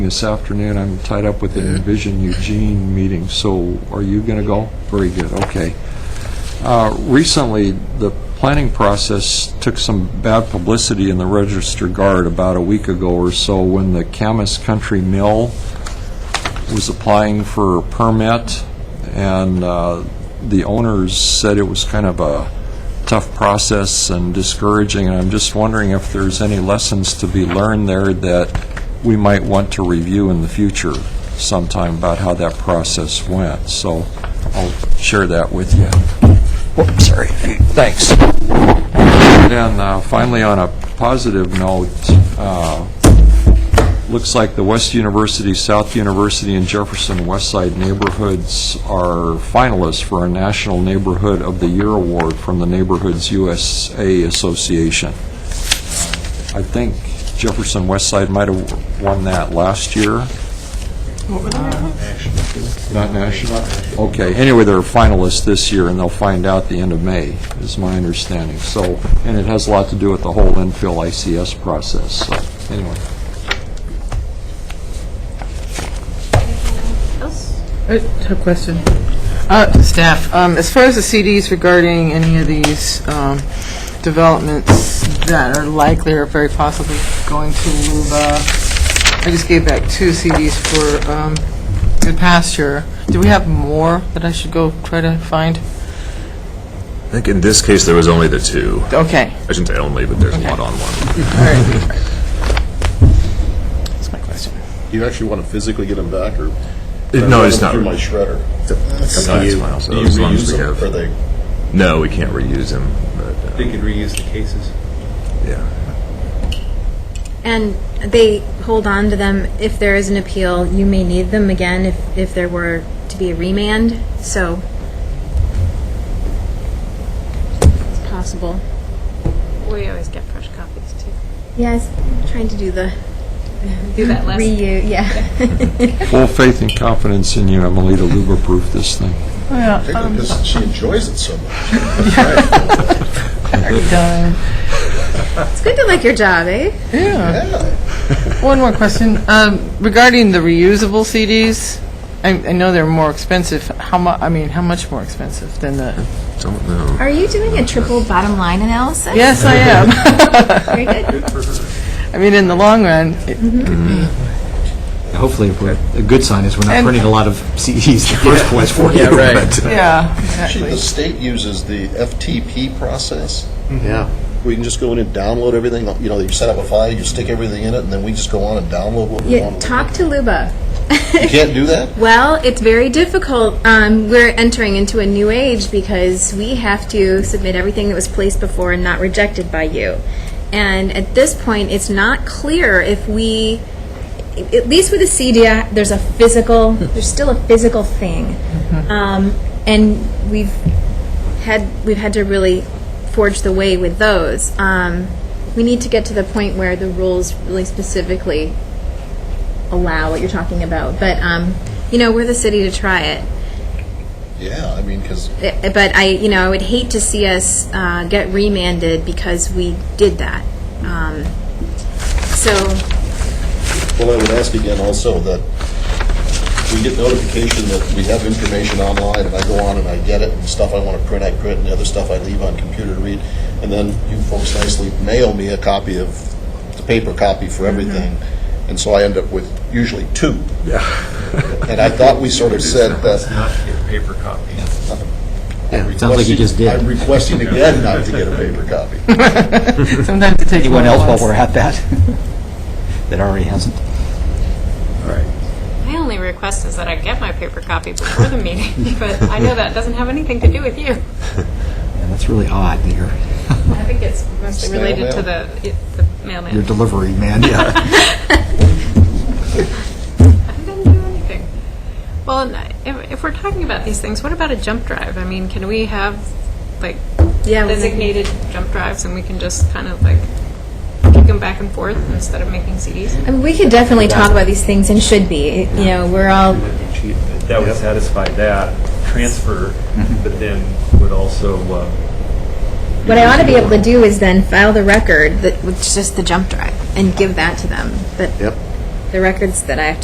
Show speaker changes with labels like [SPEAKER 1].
[SPEAKER 1] This afternoon, I'm tied up with an Envision Eugene meeting, so are you going to go? Very good, okay. Uh, Recently, the planning process took some bad publicity in the Register Guard about a week ago or so when the Camas Country Mill was applying for a permit, and uh, the owners said it was kind of a tough process and discouraging, and I'm just wondering if there's any lessons to be learned there that we might want to review in the future sometime about how that process went. So I'll share that with you. Whoops, sorry. Thanks. And uh, finally, on a positive note, uh, looks like the West University, South University, and Jefferson West Side neighborhoods are finalists for a National Neighborhood of the Year Award from the Neighborhoods USA Association. I think Jefferson West Side might have won that last year. Not national? Okay, anyway, they're finalists this year, and they'll find out the end of May, is my understanding. So, and it has a lot to do with the whole infill ICS process, so, anyway.
[SPEAKER 2] I have a question. Uh, to Staff, um, as far as the CDs regarding any of these um, developments that are likely or very possibly going to Luba, I just gave back two CDs for um, Good Pasture. Do we have more that I should go try to find?
[SPEAKER 3] I think in this case, there was only the two.
[SPEAKER 2] Okay,
[SPEAKER 3] I shouldn't say only, but there's a lot on one.
[SPEAKER 2] all right. That's my question.
[SPEAKER 4] Do you actually want to physically get them back, or?
[SPEAKER 3] No, it's not.
[SPEAKER 4] Through my shredder.
[SPEAKER 3] Sometimes miles,
[SPEAKER 4] Do you
[SPEAKER 3] as long as
[SPEAKER 4] reuse
[SPEAKER 3] we
[SPEAKER 4] them,
[SPEAKER 3] have-
[SPEAKER 4] or they?
[SPEAKER 3] No, we can't reuse them, but, uh,
[SPEAKER 5] They could reuse the cases.
[SPEAKER 3] yeah.
[SPEAKER 6] And they hold on to them. If there is an appeal, you may need them again if, if there were to be a remand, so it's possible.
[SPEAKER 7] We always get fresh copies too.
[SPEAKER 6] Yes, trying to do the
[SPEAKER 7] Do that last.
[SPEAKER 6] reuse, yeah.
[SPEAKER 1] Full faith and confidence in you, Emily, to Luba-proof this thing.
[SPEAKER 6] Um,
[SPEAKER 4] Because she enjoys it so much.
[SPEAKER 2] Done.
[SPEAKER 6] It's good to like your job, eh?
[SPEAKER 2] One more question. Um, Regarding the reusable CDs, I I know they're more expensive. How mu, I mean, how much more expensive than the?
[SPEAKER 3] Don't know.
[SPEAKER 6] Are you doing a triple bottom line analysis?
[SPEAKER 2] Yes, I am.
[SPEAKER 6] Very good.
[SPEAKER 2] I mean, in the long run, it-
[SPEAKER 8] Hopefully, we're- a good sign is we're not printing a lot of CDs in the first place for you. but, uh,
[SPEAKER 2] yeah, exactly.
[SPEAKER 4] Actually, the state uses the FTP process,
[SPEAKER 3] Mm-hmm.
[SPEAKER 8] Yeah.
[SPEAKER 4] where you can just go in and download everything, you know, you set up a file, you stick everything in it, and then we just go on and download what we
[SPEAKER 6] Yeah,
[SPEAKER 4] want.
[SPEAKER 6] talk to Luba.
[SPEAKER 4] You can't do that?
[SPEAKER 6] Well, it's very difficult. Um, we're entering into a new age because we have to submit everything that was placed before and not rejected by you. And at this point, it's not clear if we, at least with a CDI, there's a physical, there's still a physical thing. Um, and we've had, we've had to really forge the way with those. Um, we need to get to the point where the rules really specifically allow what you're talking about. But um, you know, we're the city to try it.
[SPEAKER 4] Yeah, I mean, because
[SPEAKER 6] I- But I, you know, I would hate to see us uh, get remanded because we did that. Um, so
[SPEAKER 4] Well, I would ask again also that we get notification that we have information online, and I go on and I get it, and stuff I want to print, I print, and the other stuff I leave on computer to read, and then you folks nicely mail me a copy of, the paper copy for
[SPEAKER 8] Mm-hmm.
[SPEAKER 4] everything, and so I end up with usually two. Yeah. And I thought we sort of said that.
[SPEAKER 5] Not get paper copies.
[SPEAKER 4] I'm
[SPEAKER 8] sounds like you
[SPEAKER 4] requesting-
[SPEAKER 8] just did.
[SPEAKER 4] I'm requesting again not to get a paper copy.
[SPEAKER 2] sometimes it takes more
[SPEAKER 8] Anyone
[SPEAKER 2] than
[SPEAKER 8] else while
[SPEAKER 2] once.
[SPEAKER 8] we're at that? That already hasn't?
[SPEAKER 7] My only request is that I get my paper copy before the meeting, but I know that doesn't have anything to do with you.
[SPEAKER 8] Yeah, that's really odd, that your,
[SPEAKER 7] I think it's mostly
[SPEAKER 4] Snail
[SPEAKER 7] related to the, it- the
[SPEAKER 8] your
[SPEAKER 7] mailman.
[SPEAKER 8] delivery man, yeah.
[SPEAKER 7] I didn't do anything. Well, and I- if, if we're talking about these things, what about a jump drive? I mean, can we have like
[SPEAKER 6] Yeah, we-
[SPEAKER 7] designated jump drives and we can just kind of like kick them back and forth instead of making CDs?
[SPEAKER 6] I mean, we could definitely talk about these things and should be. You know, we're all
[SPEAKER 5] That would satisfy that transfer, but then would also, uh,
[SPEAKER 6] What I ought to be able to do is then file the record that with just the jump drive and give that to them. But
[SPEAKER 4] Yep.
[SPEAKER 6] the records that I have to